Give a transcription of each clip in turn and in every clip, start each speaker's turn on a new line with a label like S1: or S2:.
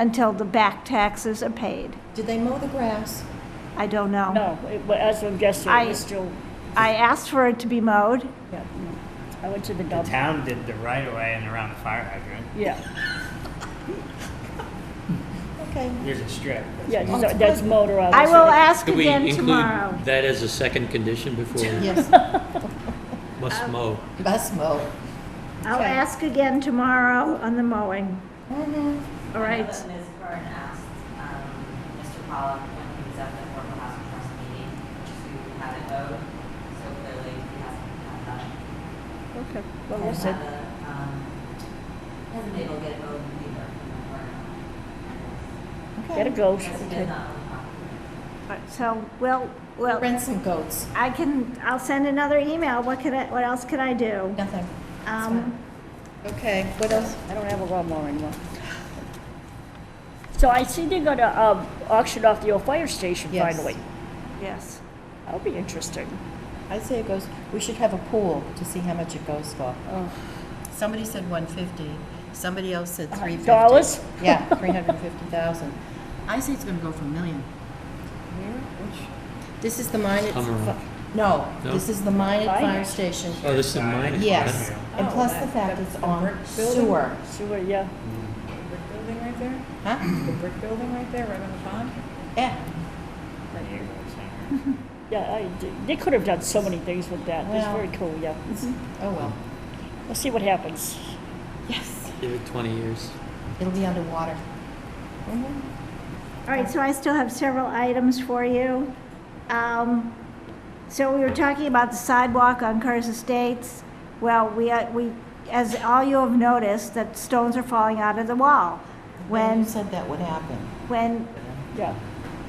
S1: until the back taxes are paid.
S2: Did they mow the grass?
S1: I don't know.
S3: No, it wa- as of yesterday, it was
S1: I-
S3: still,
S1: I asked for it to be mowed.
S3: yeah, no. I went to the
S4: The
S3: dump.
S4: town did the right of way and around the fire hydrant.
S3: Yeah,
S2: Okay.
S4: There's a strip.
S3: yeah,
S2: Oh,
S3: so
S2: it's
S3: that's
S2: good.
S3: motor,
S1: I will
S3: obviously.
S1: ask
S5: Could we
S1: again
S5: include
S1: tomorrow.
S5: that as a second condition before we
S2: Yes,
S5: must mow?
S2: bus mow.
S1: I'll
S2: Okay.
S1: ask again tomorrow on the mowing,
S2: Mhm.
S1: all
S6: I know
S1: right?
S6: that Ms. Byrne asked um, Mr. Pollock when he was at the Affordable Housing Trust meeting to have it vote, so clearly he hasn't had that.
S3: Okay, well, we'll see.
S6: Hasn't had a, um, Hasn't been able to get it voted either. or-
S3: Get a
S2: Okay.
S3: goat.
S6: Yes, he
S3: Okay.
S6: did not. own the property.
S1: So, well, well,
S2: Rent some goats.
S1: I can, I'll send another email. What could I, what else could I do?
S2: Nothing.
S1: Um,
S2: Okay, what else?
S3: I don't have a lawnmower anymore. So I see they're gonna um, auction off the old fire station
S2: Yes.
S3: finally.
S1: yes.
S3: That'll be interesting.
S2: I say it goes, we should have a pool to see how much it goes for.
S3: Oh.
S2: Somebody said 150, somebody else said 350.
S3: Dollars?
S2: Yeah, 350,000. I say it's going to go for a million. Where? Which? This is the mine at...
S5: Hummer.
S2: No,
S5: No?
S2: this is the mine at
S3: Mine?
S2: fire station.
S5: Oh, this is mine?
S2: Yes, and
S3: Oh,
S2: plus
S3: that-
S2: the fact it's on
S7: building?
S2: sewer.
S3: Sewer, uh, yeah.
S7: Brick building right there?
S2: Huh?
S7: The brick building right there, right on the pond?
S2: Yeah,
S3: Yeah, I, they could have done so many things with that. It's
S2: Well.
S3: very cool, yeah.
S2: oh well.
S3: We'll see what happens.
S2: Yes.
S5: Give it 20 years.
S2: It'll be underwater.
S1: All right, so I still have several items for you. Um, So we were talking about the sidewalk on Curtis Estates. Well, we, uh, we, as all you have noticed, that stones are falling out of the wall.
S2: You
S1: When,
S2: said that would happen.
S1: when
S3: Yeah.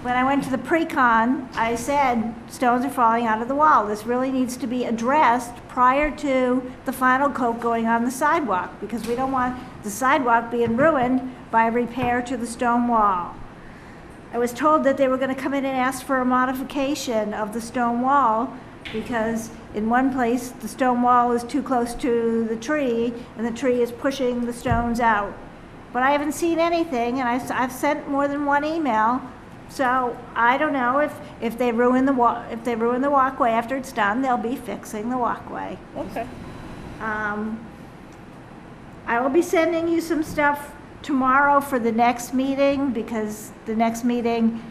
S1: When I went to the pre-con, I said, stones are falling out of the wall. This really needs to be addressed prior to the final coat going on the sidewalk, because we don't want the sidewalk being ruined by repair to the stone wall. I was told that they were gonna come in and ask for a modification of the stone wall, because in one place, the stone wall is too close to the tree, and the tree is pushing the stones out. But I haven't seen anything, and I've, I've sent more than one email, so I don't know if, if they ruin the wa, if they ruin the walkway after it's done, they'll be fixing the walkway.
S3: Okay.
S1: Um, I will be sending you some stuff tomorrow for the next meeting, because the next meeting,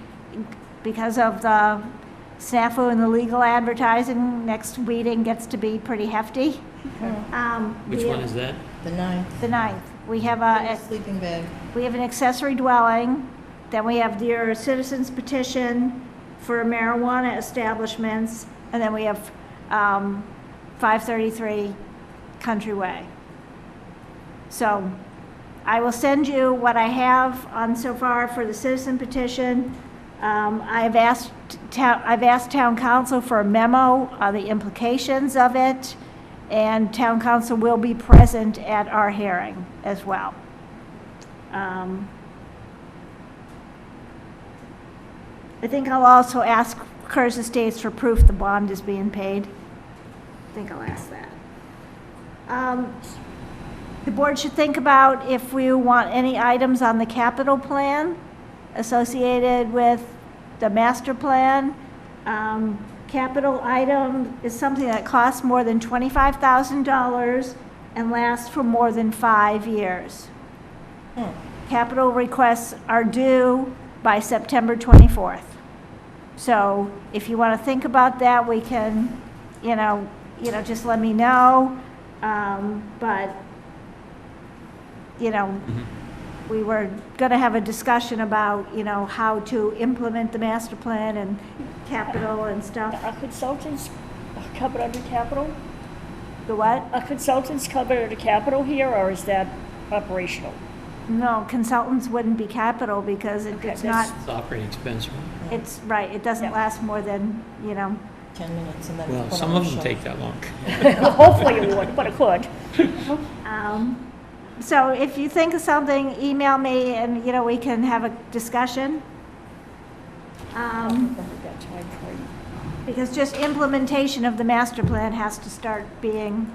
S1: because of the snafu and the legal advertising, next meeting gets to be pretty hefty. Um,
S5: Which
S1: we-
S5: one is that?
S2: The ninth,
S1: The ninth. We have uh, a,
S2: sleeping bag.
S1: we have an accessory dwelling, then we have your citizens petition for marijuana establishments, and then we have um, 533 Countryway. So I will send you what I have on so far for the citizen petition. Um, I've asked town, I've asked town council for a memo on the implications of it, and town council will be present at our hearing as well. Um, I think I'll also ask Curtis Estates for proof the bond is being paid. I think I'll ask that. Um, The board should think about if we want any items on the capital plan associated with the master plan. Um, Capital item is something that costs more than $25,000 and lasts for more than five years. Capital requests are due by September 24th. So if you want to think about that, we can, you know, you know, just let me know. Um, But, you know, we were going to have a discussion about, you know, how to implement the master plan and capital and stuff.
S3: Are consultants covered under capital?
S1: The what?
S3: Are consultants covered under capital here, or is that operational?
S1: No, consultants wouldn't be capital because it-
S3: Okay,
S1: it's not,
S3: that's-
S5: It's operating expense, right?
S1: it's, right, it doesn't
S3: Yeah.
S1: last more than, you know,
S2: 10 minutes and then it's
S5: Well,
S2: put
S5: some
S2: on
S5: of
S2: the shelf.
S5: them take that long.
S3: Hopefully it would, but it could.
S1: Um, So if you think of something, email me and, you know, we can have a discussion. Um,
S3: That time frame.
S1: Because just implementation of the master plan has to start being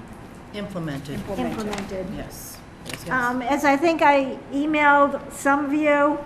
S2: Implemented,
S3: Implemented.
S1: implemented.
S2: yes. Yes, yes.
S1: Um, As I think I emailed some of you,